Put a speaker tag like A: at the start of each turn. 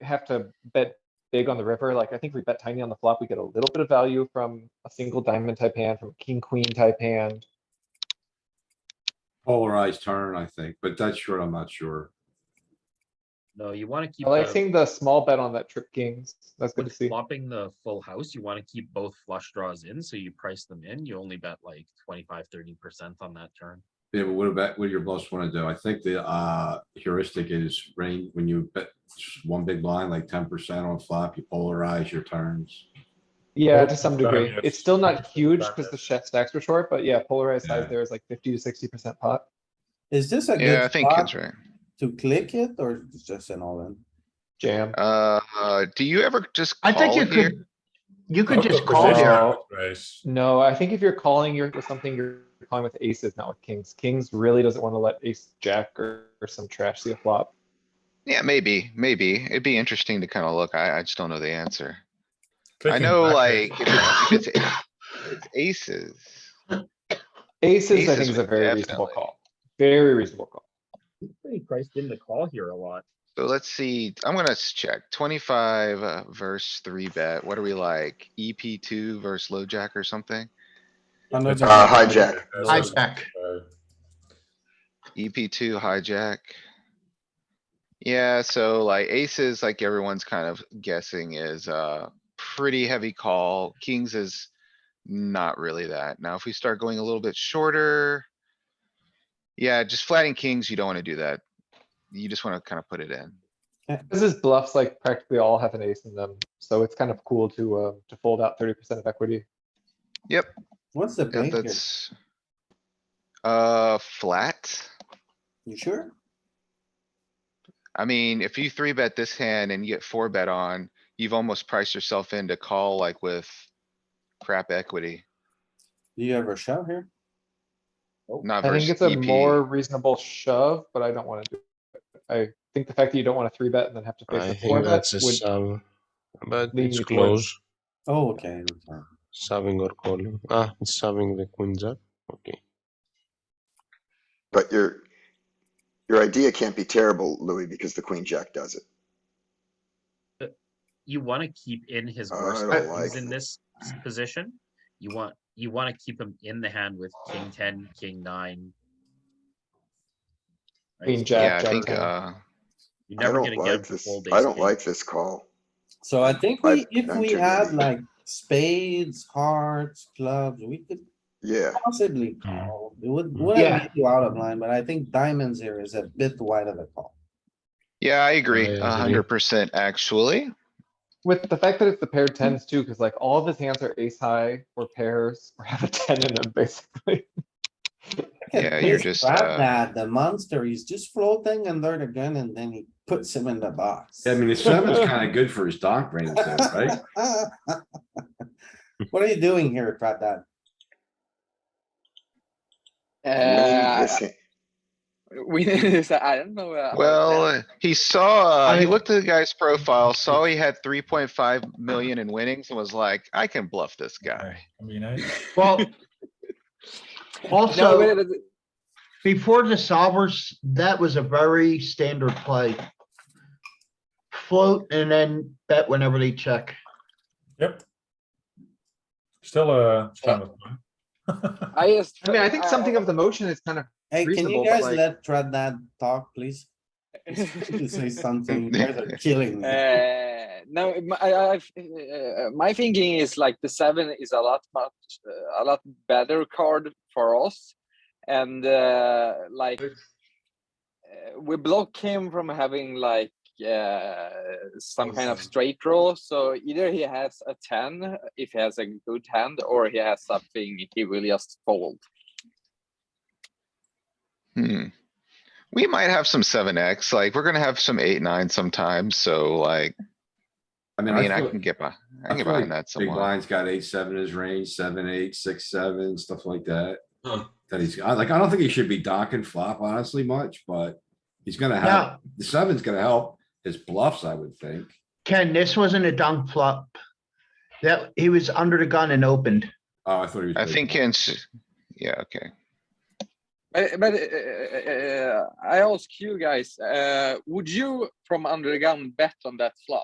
A: have to bet big on the river. Like, I think we bet tiny on the flop. We get a little bit of value from a single diamond type hand, from a king, queen type hand.
B: Polarized turn, I think, but that's sure, I'm not sure.
C: No, you wanna keep
A: I like
C: the,
A: seeing the small bet on that trip kings. That's good
C: when
A: to see.
C: flopping the full house, you wanna keep both flush draws in, so you price them in, you only bet like 25, 30 percent on that turn.
B: Yeah, but what about, what do your bluffs wanna do? I think the, uh, heuristic is range, when you bet just one big blind, like ten percent on flop, you polarize your turns.
A: Yeah,
D: Well,
A: to some
D: it's better,
A: degree.
D: yes.
A: It's still not huge
D: back
A: because the
D: end.
A: chef stacks were short, but yeah, polarized size
B: Yeah.
A: there is like fifty to sixty percent pot.
E: Is this a
F: Yeah, I
E: good
F: think
E: spot
F: that's right.
E: to click it or it's just an all in?
A: Jam.
F: Uh, uh, do you ever just
G: I think
F: call
G: you
F: here?
G: could, you could just
D: Poker
G: call
D: position,
G: there.
A: there.
D: raise.
A: No, I think if you're calling, you're with something, you're calling with aces, not with kings. Kings really doesn't want to let ace jack or, or some trash see a flop.
F: Yeah, maybe, maybe. It'd be interesting to kind of look. I, I just don't know the answer. I
D: Clicking
F: know
D: backwards.
F: like, if it's, if it's it's aces.
A: Aces, I think,
F: Aces
A: is a
F: would
A: very reasonable
F: definitely-
A: call. Very reasonable call.
C: Pretty priced in the call here a lot.
F: So let's see, I'm gonna s- check twenty-five uh, verse three bet. What are we like? EP two versus low jack or something?
E: Under the-
H: Uh, hijack.
D: That's
G: I
D: what-
G: check.
D: uh,
F: EP E two hijack. Yeah, so like aces, like everyone's kind of guessing is a pretty heavy call. Kings is not really that. Now, if we start going a little bit shorter. Yeah, just flatting kings, you don't wanna do that. You just wanna kind of put it in.
A: This is bluffs, like practically all have an ace in them, so it's kind of cool to, uh, to fold out thirty percent of equity.
E: What's the
F: Yeah,
E: bank here?
F: that's. Uh, flat.
E: You sure?
F: I mean, if you three bet this hand and you get four bet on, you've almost priced yourself in to call like with crap equity,
E: Do you ever shove here?
F: not
A: I think
F: versus E
A: it's a more
F: EP.
A: reasonable shove, but I don't wanna do it. I think the fact that you don't wanna three bet and then have to face
I: I
A: a four
I: think
A: bet
I: that's a
A: would,
I: sum, but
A: lean
I: it's
A: you towards-
I: close,
E: Oh, okay. okay.
I: subbing or calling. Ah, it's subbing the queen jack, okay.
H: But your, your idea can't be terrible, Louis, because the queen jack does it.
C: You wanna keep in his
H: I
C: worst
H: don't
C: hands
H: like
C: in this s- position, you want, you wanna keep him in the hand with king ten, king nine. Right,
A: Queen
C: so
A: jack,
F: Yeah, I
A: jack
F: think,
A: ten.
F: uh,
C: You're
H: I
C: never
H: don't
C: gonna get him
H: like
C: to
H: this,
C: fold
H: I
C: ace
H: don't
C: king.
H: like this call.
E: So I think
H: I-
E: we, if
H: I'm
E: we
H: sure
E: had
H: maybe.
E: like spades, hearts, clubs, we could
H: Yeah,
E: possibly call. It would,
I: Mm.
A: Yeah.
E: wouldn't make you out of line, but I think diamonds here is a bit wide of a call.
F: yeah, I agree,
I: agree.
F: a hundred percent
A: Uh,
F: actually.
A: With the fact that it's the paired tens too, cuz like all of his hands are ace high or pairs or have a ten in them basically.
E: Look at
F: Yeah, you're
E: this
F: just,
E: crap
F: uh,
E: that the monster, he's just floating under the gun and then he puts him in the box.
B: I mean, the seven's kinda good for his donk range though, right?
E: What are you doing here, Prat Dad?
H: I mean,
J: Uh,
H: this hand-
J: we this. I don't know. Uh, about
F: Well,
J: that.
F: uh, he saw, uh, he
G: I-
F: looked at the guy's profile, saw he had three point five million in winnings and was like, I can bluff this guy.
D: I mean, I.
G: Well.
J: no,
G: Also,
J: wait, it- it-
G: before the solvers, that was a very standard play. Float and then bet whenever they check.
D: Yep. Still uh, a standard one.
J: I just. uh,
A: I mean, I think something of the motion is kind of
E: Hey, can
A: Reasonable,
E: you
A: but
E: guys
A: like-
E: let Prat Dad talk, please? To say something, you guys are killing me.
J: Uh, no, my, I, I've, uh, my thinking is like the seven is a lot much, uh, a lot better card for us, and uh, like uh, we block him from having like uh, some kind of
D: Awesome.
J: straight draw. So either he has a ten if he has a good hand, or he has something he will just fold.
F: Hmm. We might have some seven X, like, we're gonna have some eight, nine sometimes, so like,
B: I
F: I mean, I
B: feel-
F: can get by, I
B: I
F: can get
B: feel like
F: behind that
B: Big
F: somewhat.
B: blind's got eight, seven in his range, seven, eight, six, seven, stuff like that.
D: Huh.
B: That he's, I like, I don't think he should be docking flop honestly much, but he's gonna help.
G: Now,
B: The seven's gonna help his bluffs, I would think.
G: Ken, this wasn't a dunk flop. That, he was under the gun and opened.
B: Oh, I thought he was.
F: I
B: big
F: think
B: blind.
F: in, s- yeah, okay.
J: But, but uh, uh, I ask you guys, uh, would you from under the gun bet on that flop?